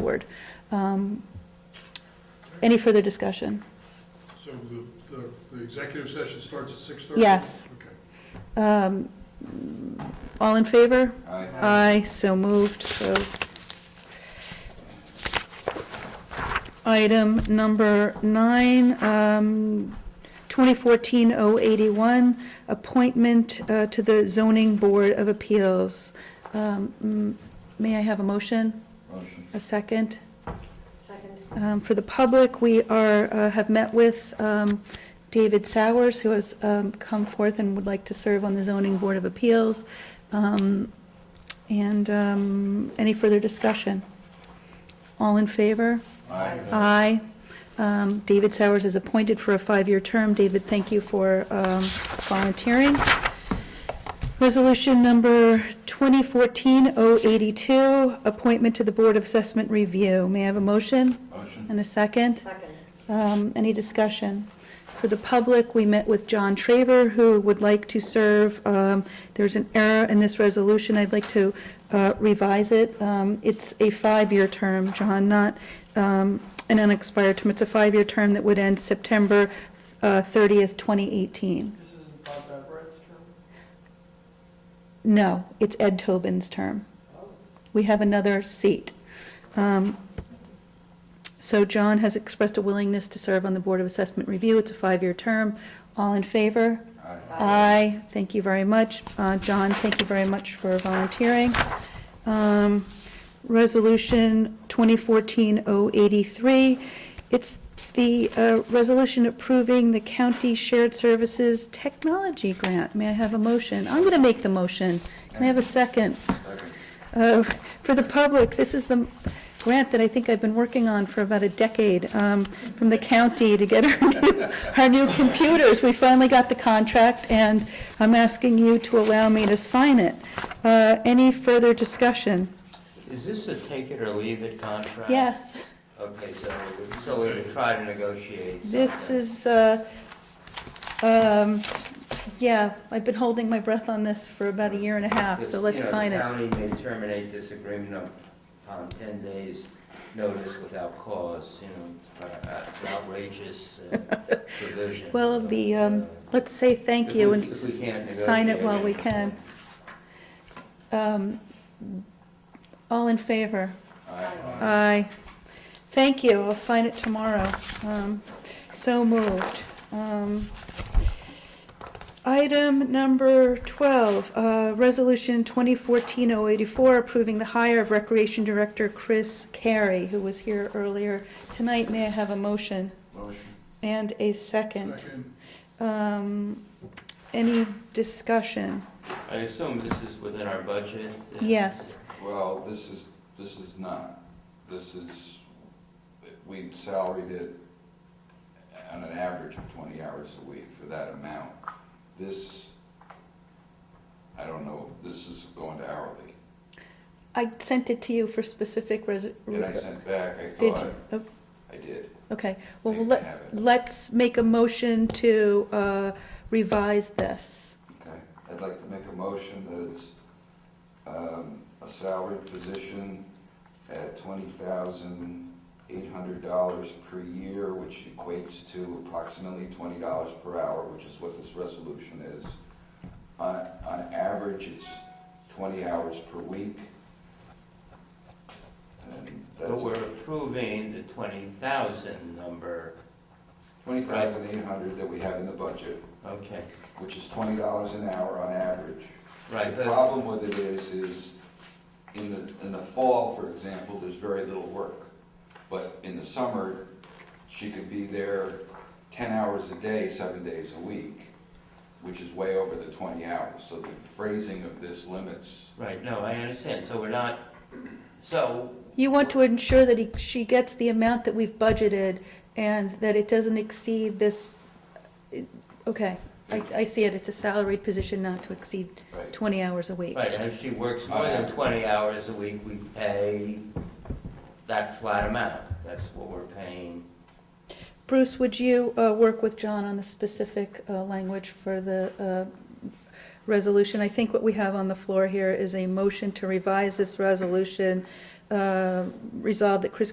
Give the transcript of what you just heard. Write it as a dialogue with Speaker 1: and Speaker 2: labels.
Speaker 1: forward. Um, Any further discussion?
Speaker 2: So the, the, the executive session starts at six thirty?
Speaker 1: Yes.
Speaker 2: Okay.
Speaker 1: Um, All in favor?
Speaker 3: Aye.
Speaker 1: Aye, so moved, so. Item number nine, um, 2014-081, appointment uh, to the Zoning Board of Appeals. Um, mm, May I have a motion,
Speaker 3: Motion.
Speaker 1: a second?
Speaker 4: Second.
Speaker 1: Um, For the public, we are, uh, have met with um, David Sowers, who has um, come forth and would like to serve on the Zoning Board of Appeals. Um, And um, any further discussion? All in favor?
Speaker 3: Aye.
Speaker 1: Aye. Um, David Sowers is appointed for a five-year term. David, thank you for um, volunteering. Resolution number 2014-082, appointment to the Board of Assessment Review. May I have a motion?
Speaker 3: Motion.
Speaker 1: And a second?
Speaker 4: Second.
Speaker 1: Um, Any discussion? For the public, we met with John Traver, who would like to serve. Um, There's an error in this resolution, I'd like to uh, revise it. Um, It's a five-year term, John, not um, an unexpired term. It's a five-year term that would end September uh, 30th, 2018.
Speaker 5: This isn't Bob Everett's term?
Speaker 1: No, it's Ed Tobin's term. We have another seat. Um, So John has expressed a willingness to serve on the Board of Assessment Review. It's a five-year term. All in favor?
Speaker 3: Aye.
Speaker 1: Aye. Thank you very much. Uh, John, thank you very much for volunteering. Um, Resolution 2014-083, it's the uh, resolution approving the county shared services technology grant. May I have a motion? I'm going to make the motion. Can I have a second?
Speaker 3: Second.
Speaker 1: Uh, For the public, this is the grant that I think I've been working on for about a decade um, from the county to get our new- our new computers. We finally got the contract, and I'm asking you to allow me to sign it. Uh, Any further discussion?
Speaker 6: Is this a take it or leave it contract?
Speaker 1: Yes,
Speaker 6: Okay, so, so we would try to negotiate.
Speaker 1: this
Speaker 6: something.
Speaker 1: is, uh, um, yeah, I've been holding my breath on this for about a year and a half,
Speaker 6: This-
Speaker 1: so let's sign
Speaker 6: You
Speaker 1: it.
Speaker 6: know, the county may terminate this agreement upon ten days' notice without cause, you know, but uh, it's an outrageous uh, provision. uh,
Speaker 1: Well, the, um, let's say thank
Speaker 6: If
Speaker 1: you
Speaker 6: we-
Speaker 1: and
Speaker 6: if we can't
Speaker 1: s- sign it while we
Speaker 6: negotiate
Speaker 1: can.
Speaker 6: it.
Speaker 1: Um, All in favor?
Speaker 3: Aye.
Speaker 1: Aye. Thank you, I'll sign it tomorrow. Um, So moved. Um, Item number 12, uh, Resolution 2014-084, approving the hire of Recreation Director Chris Carey, who was here earlier tonight. May I have a motion
Speaker 3: Motion.
Speaker 1: and a second?
Speaker 2: Second,
Speaker 1: Um, Any discussion?
Speaker 6: I assume this is within our budget? uh,
Speaker 1: Yes,
Speaker 3: Well, this is, this is not. This is, we salaried it on an average of twenty hours a week for that amount. This, I don't know, this is going to hourly.
Speaker 1: I sent it to you for specific res-
Speaker 3: And I sent back, I
Speaker 1: Did
Speaker 3: thought,
Speaker 1: you? Oh,
Speaker 3: I did.
Speaker 1: Okay, well,
Speaker 3: I
Speaker 1: we'll let,
Speaker 3: have it.
Speaker 1: Let's make a motion to uh, revise this.
Speaker 3: Okay, I'd like to make a motion that it's um, a salaried position at twenty thousand eight hundred dollars per year, which equates to approximately twenty dollars per hour, which is what this resolution is. On, on average, it's twenty hours per week. And
Speaker 6: But
Speaker 3: that's
Speaker 6: we're approving the twenty thousand number,
Speaker 3: twenty thousand eight hundred that we have in the budget,
Speaker 6: okay,
Speaker 3: which is twenty dollars an hour on average.
Speaker 6: right,
Speaker 3: The
Speaker 6: but.
Speaker 3: problem with it is, is in the, in the fall, for example, there's very little work. But in the summer, she could be there ten hours a day, seven days a week, which is way over the twenty hours. So the phrasing of this limits,
Speaker 6: Right, no, I understand, so we're not, so,
Speaker 1: You want to ensure that he- she gets the amount that we've budgeted and that it doesn't exceed this, okay. I I see it, it's a salaried position not to exceed
Speaker 3: right?
Speaker 1: 20 hours a week.
Speaker 6: right, and if she works more than twenty hours a week, we pay that flat amount, that's what we're paying.
Speaker 1: Bruce, would you uh, work with John on the specific uh, language for the uh, resolution? I think what we have on the floor here is a motion to revise this resolution uh, resolved that Chris